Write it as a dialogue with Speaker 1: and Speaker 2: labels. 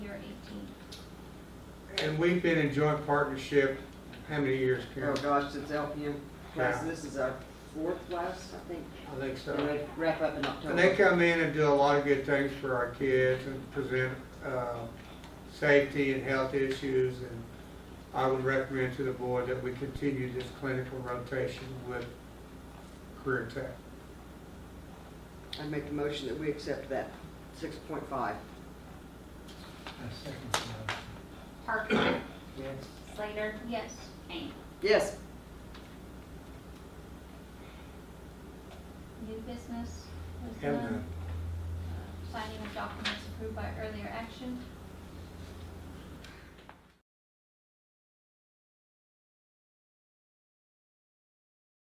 Speaker 1: And we've been in joint partnership, how many years,
Speaker 2: Oh
Speaker 1: Karen?
Speaker 2: gosh, it's LPM class,
Speaker 1: Yeah.
Speaker 2: this is our fourth class, I think,
Speaker 1: I think
Speaker 2: and
Speaker 1: so.
Speaker 2: they wrap up in
Speaker 1: And they
Speaker 2: October.
Speaker 1: come in and do a lot of good things for our kids and present, uh, safety and health issues. And I would recommend to the board that we continue this clinical rotation with Career Tech.
Speaker 2: I make a motion that we accept that, six point five.
Speaker 3: Parker,
Speaker 2: Yes.
Speaker 3: Slater. Yes. Kane.
Speaker 2: Yes,
Speaker 3: New business was
Speaker 1: Have
Speaker 3: done.
Speaker 1: none.
Speaker 3: Uh, Signing of documents approved by earlier action.